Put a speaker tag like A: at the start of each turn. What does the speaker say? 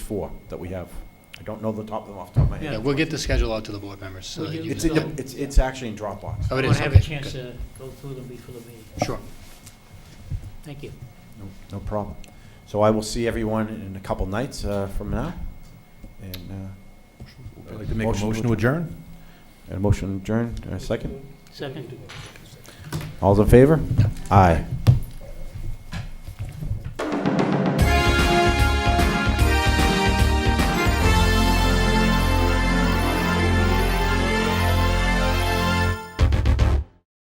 A: four that we have. I don't know the top of them off the top of my
B: Yeah,
A: head.
B: we'll get the schedule out to the board members. so
C: We
B: that
C: do.
B: you
A: It's
B: can-
A: in, the- it's, it's actually in Dropbox.
B: Oh, it
C: I
B: is,
C: want to have a
B: okay,
C: chance
B: good.
C: to go through them before the meeting.
B: Sure.
C: Thank you.
A: No- No problem. So I will see everyone in a couple nights uh, from now. And, uh,
D: I'd like to make a motion to adjourn.
A: and a motion adjourned, a second.
C: Second.
A: All's in favor? Aye.